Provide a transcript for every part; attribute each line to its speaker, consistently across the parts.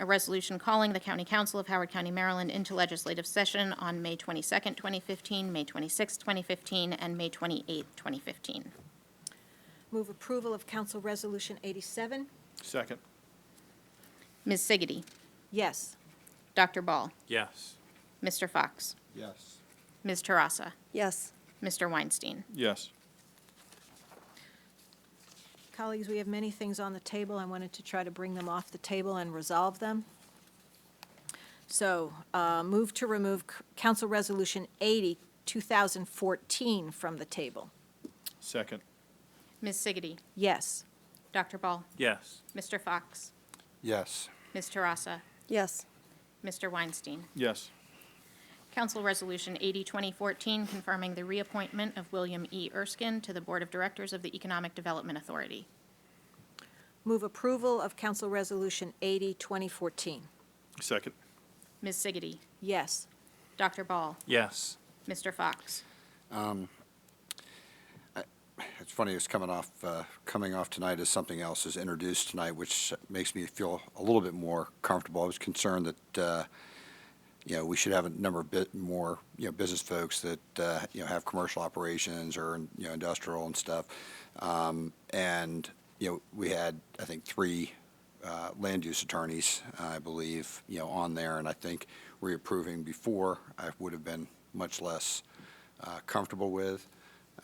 Speaker 1: A resolution calling the County Council of Howard County, Maryland into legislative session on May 22nd, 2015, May 26th, 2015, and May 28th, 2015.
Speaker 2: Move approval of Council Resolution 87?
Speaker 3: Second.
Speaker 1: Ms. Siggety.
Speaker 2: Yes.
Speaker 1: Dr. Ball.
Speaker 3: Yes.
Speaker 1: Mr. Fox.
Speaker 4: Yes.
Speaker 1: Ms. Tarassa.
Speaker 5: yes,
Speaker 1: Mr. Weinstein.
Speaker 3: Yes.
Speaker 2: Colleagues, we have many things on the table. I wanted to try to bring them off the table and resolve them. So uh, move to remove C- Council Resolution 80, 2014, from the table.
Speaker 3: Second.
Speaker 1: Ms. Siggety.
Speaker 2: Yes.
Speaker 1: Dr. Ball.
Speaker 3: Yes.
Speaker 1: Mr. Fox.
Speaker 4: Yes.
Speaker 1: Ms. Tarassa.
Speaker 5: yes,
Speaker 1: Mr. Weinstein.
Speaker 3: Yes.
Speaker 1: Council Resolution 80, 2014, confirming the reappointment of William E. Erskine to the Board of Directors of the Economic Development Authority.
Speaker 2: Move approval of Council Resolution 80, 2014.
Speaker 3: Second.
Speaker 1: Ms. Siggety.
Speaker 2: Yes.
Speaker 1: Dr. Ball.
Speaker 3: Yes.
Speaker 1: Mr. Fox.
Speaker 4: It's funny, it's coming off, uh, coming off tonight as something else is introduced tonight, which makes me feel a little bit more comfortable. I was concerned that, uh, you know, we should have a number of bit more, you know, business folks that, uh, you know, have commercial operations or, you know, industrial and stuff. Um, And, you know, we had, I think, three uh, land use attorneys, I believe, you know, on there. And I think reapproving before, I would have been much less uh, comfortable with.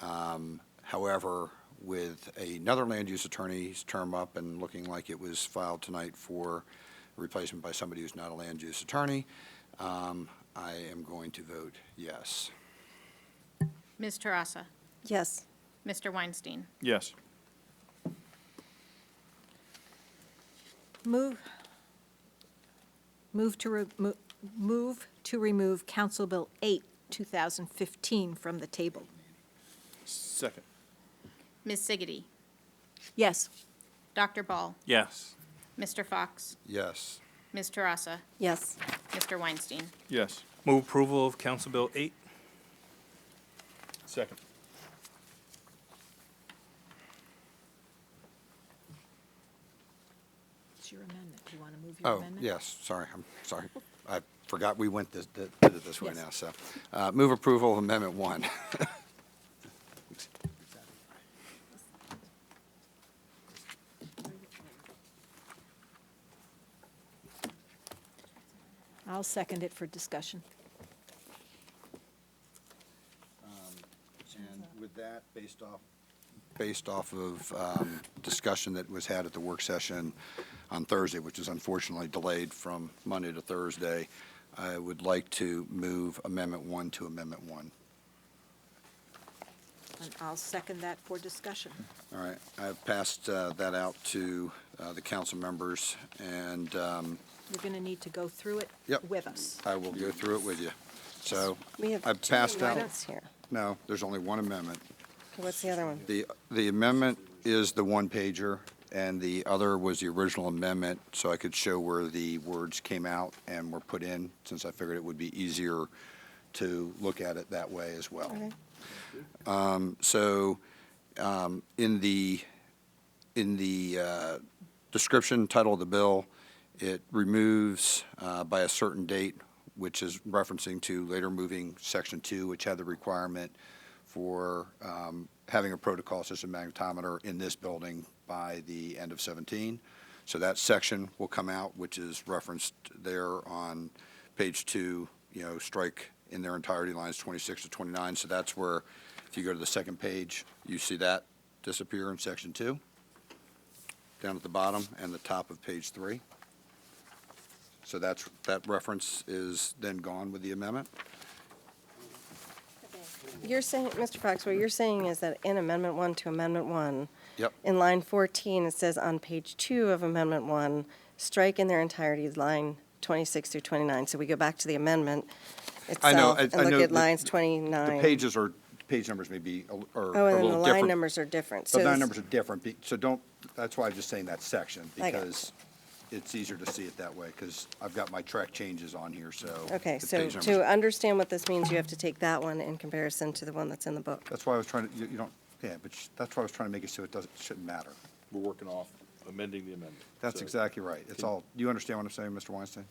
Speaker 4: Um, However, with another land use attorney's term up and looking like it was filed tonight for replacement by somebody who's not a land use attorney, um, I am going to vote yes.
Speaker 1: Ms. Tarassa.
Speaker 5: yes,
Speaker 1: Mr. Weinstein.
Speaker 3: Yes.
Speaker 2: Move, move to, re- mo- move to remove Council Bill 8, 2015, from the table.
Speaker 3: Second.
Speaker 1: Ms. Siggety.
Speaker 2: Yes.
Speaker 1: Dr. Ball.
Speaker 3: Yes.
Speaker 1: Mr. Fox.
Speaker 4: Yes.
Speaker 1: Ms. Tarassa.
Speaker 5: yes,
Speaker 1: Mr. Weinstein.
Speaker 3: Yes.
Speaker 6: Move approval of Council Bill 8?
Speaker 3: Second.
Speaker 2: It's your amendment. Do you want to move your
Speaker 4: Oh,
Speaker 2: amendment?
Speaker 4: yes, sorry, I'm sorry. I forgot we went this, did it this way
Speaker 2: Yes.
Speaker 4: now, so. uh, Move approval of Amendment 1.
Speaker 2: I'll second it for discussion.
Speaker 4: And with that, based off? Based off of um, discussion that was had at the work session on Thursday, which is unfortunately delayed from Monday to Thursday, I would like to move Amendment 1 to Amendment 1.
Speaker 2: And I'll second that for discussion.
Speaker 4: All right, I've passed uh, that out to uh, the council members, and um,
Speaker 2: You're going to need to go through it
Speaker 4: Yep.
Speaker 2: with us.
Speaker 4: I will go through it with you. So
Speaker 5: we have
Speaker 4: I've
Speaker 5: two
Speaker 4: passed out,
Speaker 5: amendments here.
Speaker 4: no, there's only one amendment.
Speaker 5: Okay, what's the other one?
Speaker 4: The, the amendment is the one pager, and the other was the original amendment, so I could show where the words came out and were put in, since I figured it would be easier to look at it that way as well.
Speaker 5: Okay.
Speaker 4: Um, So um, in the, in the uh, description, title of the bill, it removes uh, by a certain date, which is referencing to later moving Section 2, which had the requirement for um, having a protocol system magnetometer in this building by the end of 17. So that section will come out, which is referenced there on page 2, you know, strike in their entirety lines 26 to 29. So that's where, if you go to the second page, you see that disappear in Section 2 down at the bottom and the top of page three. So that's, that reference is then gone with the amendment?
Speaker 5: You're saying, Mr. Fox, what you're saying is that in Amendment 1 to Amendment 1,
Speaker 4: Yep.
Speaker 5: in line 14, it says on page 2 of Amendment 1, strike in their entirety line 26 through 29. So we go back to the amendment
Speaker 4: I know,
Speaker 5: itself
Speaker 4: I-
Speaker 5: and
Speaker 4: I know
Speaker 5: look at
Speaker 4: the-
Speaker 5: lines
Speaker 4: The
Speaker 5: 29.
Speaker 4: pages are, page numbers may be, a- are are
Speaker 5: Oh,
Speaker 4: a
Speaker 5: and then the
Speaker 4: little
Speaker 5: line
Speaker 4: different.
Speaker 5: numbers are different.
Speaker 4: The
Speaker 5: So
Speaker 4: line
Speaker 5: this-
Speaker 4: numbers are different, be- so don't, that's why I'm just saying that section,
Speaker 5: I got it.
Speaker 4: because it's easier to see it that way, because I've got my track changes on here, so.
Speaker 5: Okay,
Speaker 4: the
Speaker 5: so
Speaker 4: page numbers-
Speaker 5: to understand what this means, you have to take that one in comparison to the one that's in the book.
Speaker 4: That's why I was trying to, you you don't, yeah, but sh- that's why I was trying to make it so it doesn't, shouldn't matter. We're working off
Speaker 3: amending the amendment.
Speaker 4: That's
Speaker 3: So-
Speaker 4: exactly right. It's all, you understand what I'm saying, Mr. Weinstein?